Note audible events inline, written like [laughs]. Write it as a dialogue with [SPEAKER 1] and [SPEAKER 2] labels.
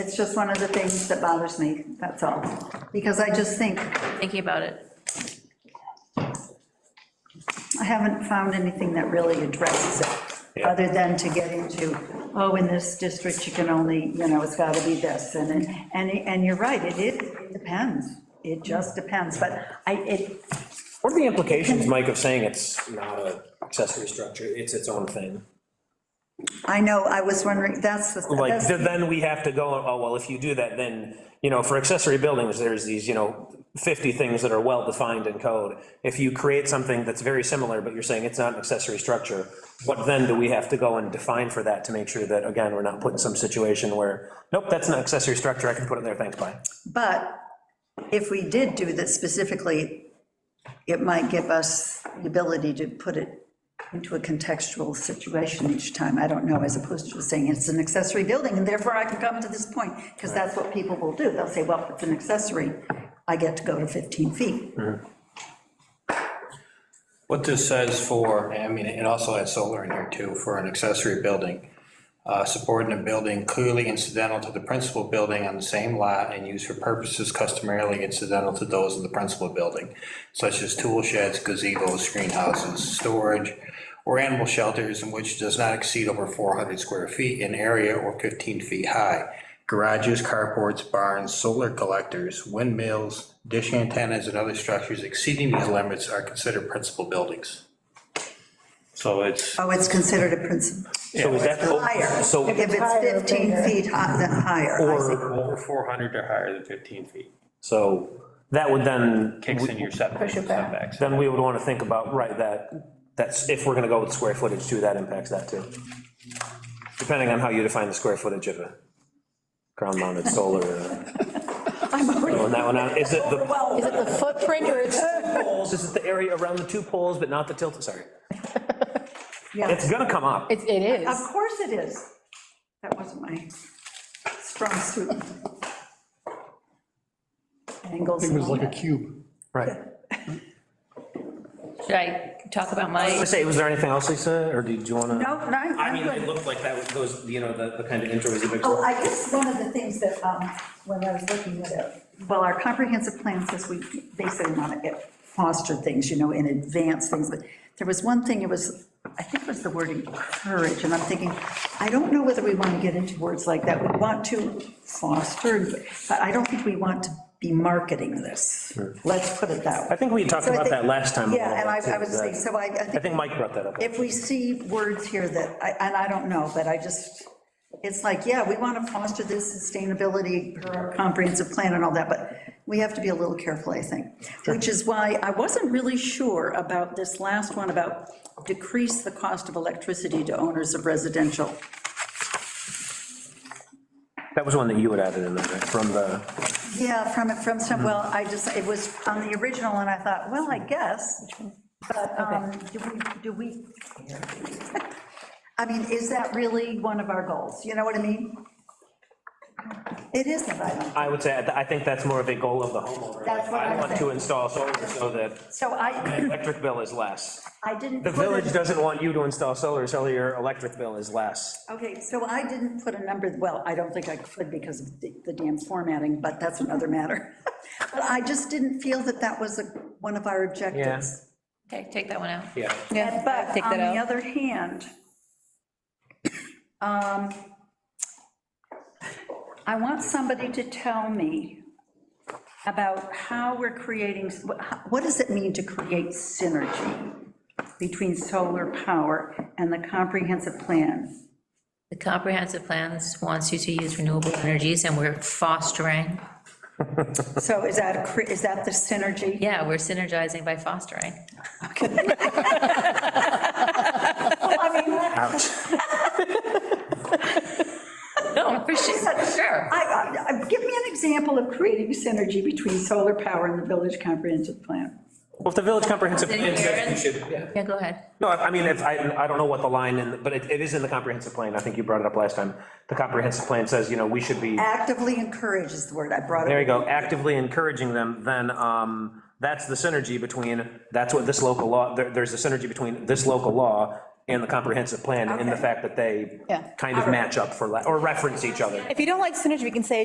[SPEAKER 1] It's just one of the things that bothers me, that's all. Because I just think,
[SPEAKER 2] thinking about it.
[SPEAKER 1] I haven't found anything that really addresses it,
[SPEAKER 3] Yeah.
[SPEAKER 1] other than to get into, oh, in this district, you can only, you know, it's got to be this, and, it- and, and you're right, it, it depends. It just depends, but I, it,
[SPEAKER 3] What are the implications, Mike, of saying it's not a accessory structure, it's its own thing?
[SPEAKER 1] I know, I was wondering, that's the.
[SPEAKER 3] Like,
[SPEAKER 1] that's-
[SPEAKER 3] th- then we have to go, oh, well, if you do that, then, you know, for accessory buildings, there's these, you know, 50 things that are well-defined in code. If you create something that's very similar, but you're saying it's not an accessory structure, what then do we have to go and define for that to make sure that, again, we're not put in some situation where, nope, that's an accessory structure, I can put it there, thanks, bye.
[SPEAKER 1] But if we did do that specifically, it might give us the ability to put it into a contextual situation each time, I don't know, as opposed to just saying it's an accessory building, and therefore I can come to this point, because that's what people will do, they'll say, well, it's an accessory, I get to go to 15 feet.
[SPEAKER 4] What this says for, I mean, it also has solar in here too, for an accessory building. Uh, Supporting a building clearly incidental to the principal building on the same lot and used for purposes customarily incidental to those of the principal building, such as tool sheds, gazebos, screen houses, storage, or animal shelters in which does not exceed over 400 square feet in area or 15 feet high. Garages, carports, barns, solar collectors, windmills, dish antennas, and other structures exceeding these limits are considered principal buildings. So it's,
[SPEAKER 1] Oh, it's considered a principal,
[SPEAKER 3] So is that
[SPEAKER 1] higher,
[SPEAKER 3] So-
[SPEAKER 1] if
[SPEAKER 5] Higher,
[SPEAKER 1] it's 15
[SPEAKER 5] bigger.
[SPEAKER 1] feet high, then higher. I see.
[SPEAKER 3] Or,
[SPEAKER 6] Over 400 or higher than 15 feet.
[SPEAKER 3] so, that would then.
[SPEAKER 6] Kicks in your setback-
[SPEAKER 5] Push it back.
[SPEAKER 6] setbacks.
[SPEAKER 3] then we would want to think about, right, that, that's, if we're going to go with square footage too, that impacts that too. Depending on how you define the square footage of a ground mounted solar.
[SPEAKER 1] [laughs]
[SPEAKER 3] uh, Throwing that one out, is it the,
[SPEAKER 5] Is it the footprint or it's?
[SPEAKER 3] poles? is it the area around the two poles, but not the tilt, sorry. It's going to come up,
[SPEAKER 5] It it
[SPEAKER 1] Of
[SPEAKER 5] is.
[SPEAKER 1] course it is. That wasn't my strong suit. Angles.
[SPEAKER 7] It was like a cube.
[SPEAKER 3] right. I
[SPEAKER 2] Should I talk about
[SPEAKER 3] was
[SPEAKER 2] my,
[SPEAKER 3] gonna say, was there anything else, Lisa, or did you want to?
[SPEAKER 1] No, no,
[SPEAKER 3] I mean,
[SPEAKER 1] I'm
[SPEAKER 3] it
[SPEAKER 1] good.
[SPEAKER 3] looked like that, was- those, you know, the, the kind of intro was a big.
[SPEAKER 1] Oh, I guess one of the things that, um, when I was looking at it, well, our comprehensive plan says we basically want to foster things, you know, and advance things, but there was one thing, it was, I think it was the word encourage, and I'm thinking, I don't know whether we want to get into words like that. We want to foster, but I don't think we want to be marketing this. Let's put it that way.
[SPEAKER 3] I think we had talked
[SPEAKER 1] So I
[SPEAKER 3] about
[SPEAKER 1] think-
[SPEAKER 3] that last time. a
[SPEAKER 1] Yeah,
[SPEAKER 3] little
[SPEAKER 1] and I,
[SPEAKER 3] bit,
[SPEAKER 1] I
[SPEAKER 3] too,
[SPEAKER 1] was saying,
[SPEAKER 3] that-
[SPEAKER 1] so I,
[SPEAKER 3] I think Mike brought that up.
[SPEAKER 1] if we see words here that, I- and I don't know, but I just, it's like, yeah, we want to foster this sustainability per our comprehensive plan and all that, but we have to be a little careful, I think. Which is why I wasn't really sure about this last one about decrease the cost of electricity to owners of residential.
[SPEAKER 3] That was one that you had added in there, right, from the.
[SPEAKER 1] Yeah, from, from some, well, I just, it was on the original, and I thought, well, I guess, but um, do we, do we? [laughs] I mean, is that really one of our goals? You know what I mean? It isn't, I don't,
[SPEAKER 3] I would say, I think that's more of a goal of the homeowner.
[SPEAKER 1] That's what
[SPEAKER 3] I
[SPEAKER 1] I'm
[SPEAKER 3] want to
[SPEAKER 1] saying.
[SPEAKER 3] install solar so that
[SPEAKER 1] so
[SPEAKER 3] my
[SPEAKER 1] I,
[SPEAKER 3] electric bill is less.
[SPEAKER 1] I didn't.
[SPEAKER 3] The
[SPEAKER 1] put
[SPEAKER 3] village
[SPEAKER 1] it-
[SPEAKER 3] doesn't want you to install solar, so your electric bill is less.
[SPEAKER 1] Okay, so I didn't put a number, well, I don't think I could because of the the damn formatting, but that's another matter. [laughs] But I just didn't feel that that was a- one of our objectives.
[SPEAKER 2] okay, take that one out.
[SPEAKER 3] Yeah.
[SPEAKER 2] Yeah,
[SPEAKER 1] But
[SPEAKER 2] take
[SPEAKER 1] on
[SPEAKER 2] that
[SPEAKER 1] the
[SPEAKER 2] out.
[SPEAKER 1] other hand, um, I want somebody to tell me about how we're creating, what does it mean to create synergy between solar power and the comprehensive plan?
[SPEAKER 2] The comprehensive plans wants you to use renewable energies, and we're fostering,
[SPEAKER 1] So is that, a cre- is that the [laughs] synergy?
[SPEAKER 2] yeah, we're synergizing by fostering.
[SPEAKER 1] I mean, I-
[SPEAKER 2] No, [laughs] for sure, sure.
[SPEAKER 1] I- I- give me an example of creating synergy between solar power and the village comprehensive plan.
[SPEAKER 3] Well, if the village comprehensive.
[SPEAKER 2] Then
[SPEAKER 3] plan says
[SPEAKER 2] Aaron-
[SPEAKER 3] we should- yeah.
[SPEAKER 2] Yeah, go ahead.
[SPEAKER 3] No, I I mean, if, I, I don't know what the line, in but it, it is in the comprehensive plan. I think you brought it up last time. The comprehensive plan says, you know, we should be.
[SPEAKER 1] Actively encourage is the word I brought up.
[SPEAKER 3] There you go, actively encouraging them, then um, that's the synergy between, that's what this local law, there- there's the synergy between this local law and the comprehensive plan, and the
[SPEAKER 1] Okay.
[SPEAKER 3] fact that they
[SPEAKER 1] Yeah.
[SPEAKER 3] kind of match up for, la- or reference each other.
[SPEAKER 5] If you don't like synergy, we can say